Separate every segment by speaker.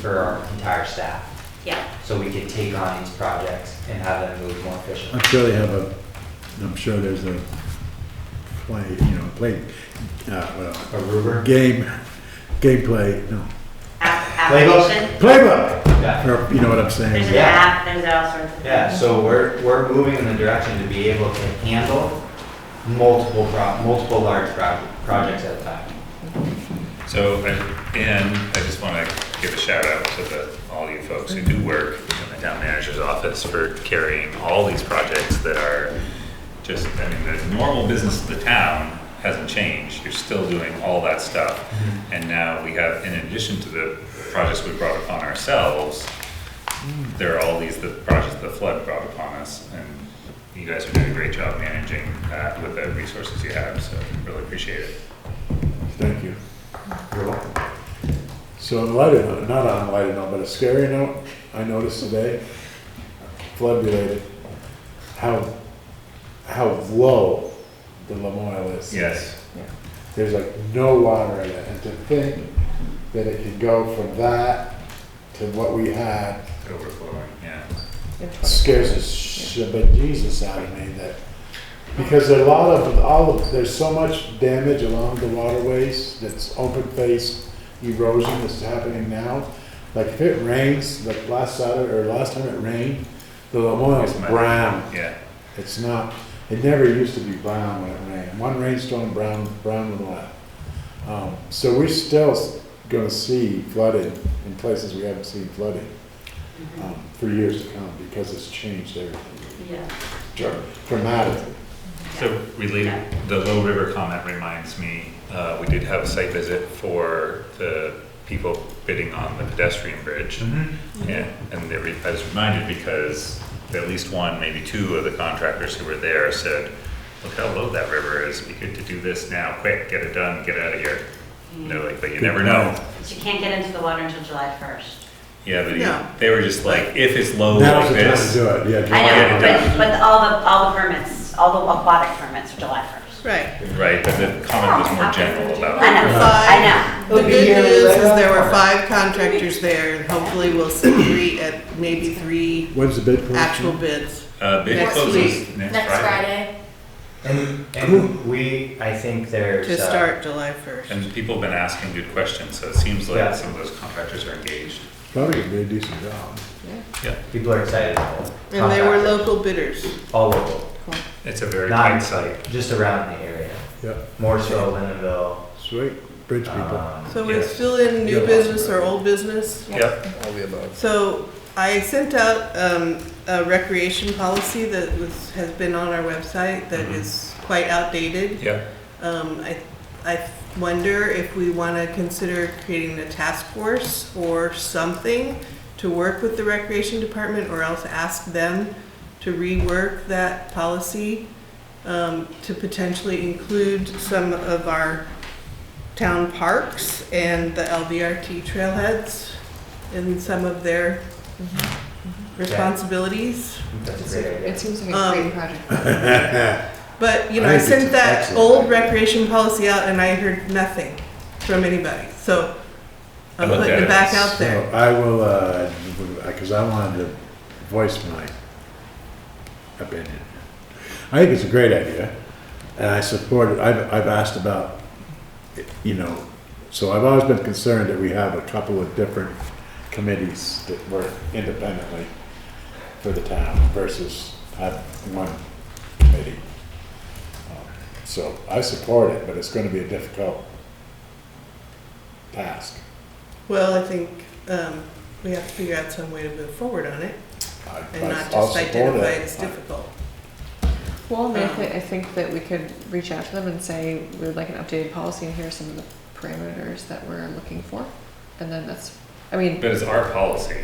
Speaker 1: for our entire staff.
Speaker 2: Yeah,
Speaker 1: So we could take on these projects and have them move more efficiently.
Speaker 3: I'm sure they have a, I'm sure there's a play, you know, play, uh,
Speaker 1: A rubric?
Speaker 3: well, game, gameplay, no,
Speaker 2: app-
Speaker 1: Playbook?
Speaker 2: application.
Speaker 3: playbook,
Speaker 1: Yeah.
Speaker 3: or, you know what I'm saying?
Speaker 2: There's an
Speaker 1: Yeah.
Speaker 2: app, there's all sorts of.
Speaker 1: Yeah, so we're, we're moving in the direction to be able to handle multiple pro, multiple large pro, projects at a time.
Speaker 4: So, I- and I just want to give a shout out to the, all you folks who do work in the town manager's office for carrying all these projects that are just, I mean, the normal business of the town hasn't changed. You're still doing all that stuff. And now we have, in addition to the projects we brought upon ourselves, there are all these, the projects the flood brought upon us. And you guys are doing a great job managing that with the resources you have, so really appreciate it.
Speaker 3: Thank you.
Speaker 1: You're welcome.
Speaker 3: So on a lighter note, not on a lighter note, but a scary note I noticed today, flood related, how, how low the Lamoille is.
Speaker 4: Yes.
Speaker 3: There's like no water in it, and to think that it could go from that to what we had
Speaker 4: Overflowing, yeah.
Speaker 3: scares the shit Jesus out of me that, because there are a lot of, all of, there's so much damage along the waterways that's open face erosion that's happening now. Like if it rains, like last Saturday, or last time it rained, the Lamoille is
Speaker 4: It's mad.
Speaker 3: brown.
Speaker 4: Yeah,
Speaker 3: It's not, it never used to be brown when it rained. One rainstorm, brown, brown and black. Um, so we're still s- gonna see flooding in places we haven't seen flooding, um, for years to come because it's changed everything
Speaker 2: Yeah.
Speaker 3: dra- dramatically.
Speaker 4: so related, the Little River comment reminds me, uh, we did have a site visit for the people bidding on the pedestrian bridge.
Speaker 3: Mm-hmm.
Speaker 4: Yeah, and they re- I was reminded because at least one, maybe two of the contractors who were there said, look how low that river is, be good to do this now, quick, get it done, get out of here. And They're like, but you never know.
Speaker 2: But you can't get into the water until July first.
Speaker 4: Yeah, but
Speaker 5: No.
Speaker 4: he- they were just like, if it's low
Speaker 3: Now's
Speaker 4: Oh, like
Speaker 3: the time to
Speaker 4: this,
Speaker 3: do it, yeah.
Speaker 2: I know,
Speaker 4: Yeah,
Speaker 2: but, but all the, all the permits, all the aquatic permits are July first.
Speaker 5: Right.
Speaker 4: right, but the comment was more general about.
Speaker 2: I know, I
Speaker 5: Five-
Speaker 2: know.
Speaker 5: The good news is there were five contractors there, and hopefully we'll see three, at maybe three
Speaker 3: When's the bid
Speaker 5: actual bids.
Speaker 4: Uh, bid
Speaker 5: Next
Speaker 4: closes
Speaker 5: week.
Speaker 4: next
Speaker 6: Next
Speaker 4: Friday.
Speaker 6: Friday.
Speaker 1: And, and we, I think there's.
Speaker 5: To
Speaker 1: uh,
Speaker 5: start July first.
Speaker 4: And people have been asking good questions, so it seems
Speaker 1: Yeah.
Speaker 4: like some of those contractors are engaged.
Speaker 3: Probably a very decent job.
Speaker 1: People are excited. about it.
Speaker 5: And they were
Speaker 1: Contractors.
Speaker 5: local bidders.
Speaker 1: All local,
Speaker 4: It's a very tight
Speaker 1: not
Speaker 4: site.
Speaker 1: like, just around the area,
Speaker 3: Yep,
Speaker 1: more so Lindenville.
Speaker 3: sweet, bridge people.
Speaker 1: um,
Speaker 5: So we're
Speaker 4: Yes.
Speaker 5: still in new
Speaker 3: Yeah.
Speaker 5: business or old business.
Speaker 4: Yep,
Speaker 5: So I sent out um, a recreation policy that was, has been on our website that
Speaker 4: Mhm.
Speaker 5: is quite outdated.
Speaker 4: yep.
Speaker 5: Um, I, I wonder if we want to consider creating a task force or something to work with the recreation department or else ask them to rework that policy um, to potentially include some of our town parks and the LVRT trailheads in some of their responsibilities.
Speaker 1: That's
Speaker 6: It's
Speaker 1: a great
Speaker 6: a-
Speaker 1: idea.
Speaker 6: It seems like a
Speaker 5: Um,
Speaker 6: great project.
Speaker 5: But, you know,
Speaker 3: I
Speaker 5: I
Speaker 3: think it's
Speaker 5: sent that
Speaker 3: excellent.
Speaker 5: old recreation policy out and I heard nothing from anybody, so I'm
Speaker 4: I looked
Speaker 5: putting
Speaker 4: at
Speaker 5: it
Speaker 4: it.
Speaker 5: back out
Speaker 3: So
Speaker 5: there.
Speaker 3: I will, uh, because I wanted to voice my opinion. I think it's a great idea, and I support it. I've, I've asked about, you know, so I've always been concerned that we have a couple of different committees that work independently for the town versus have one committee. Um, So I support it, but it's gonna be a difficult task.
Speaker 5: Well, I think um, we have to figure out some way to move forward on it
Speaker 3: I-
Speaker 5: and
Speaker 3: I-
Speaker 5: not
Speaker 3: I'll
Speaker 5: just
Speaker 3: support
Speaker 5: identify
Speaker 3: it.
Speaker 5: it as difficult.
Speaker 6: Well, and I
Speaker 3: um,
Speaker 6: thi- I think that we could reach out to them and say, we would like an updated policy and here are some of the parameters that we're looking for. And then that's, I mean,
Speaker 4: But it's our policy.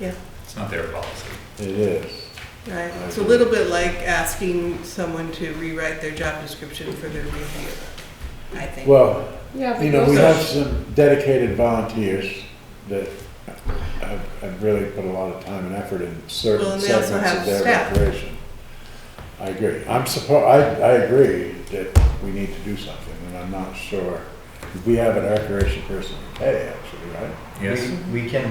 Speaker 5: Yeah.
Speaker 4: It's not their policy.
Speaker 3: It is.
Speaker 5: Right,
Speaker 3: I
Speaker 5: it's a
Speaker 3: agree.
Speaker 5: little bit like asking someone to rewrite their job description for their review, I think.
Speaker 3: Well,
Speaker 6: yeah. but
Speaker 3: you know, we
Speaker 6: those are-
Speaker 3: have some dedicated volunteers that have, have really put a lot of time and effort in
Speaker 5: Well,
Speaker 3: certain
Speaker 5: and they also
Speaker 3: segments
Speaker 5: have
Speaker 3: of their
Speaker 5: staff.
Speaker 3: operation. I agree. I'm support, I, I agree that we need to do something, and I'm not sure. We have an recreation person, hey, actually, right?
Speaker 4: Yes.
Speaker 1: We, we can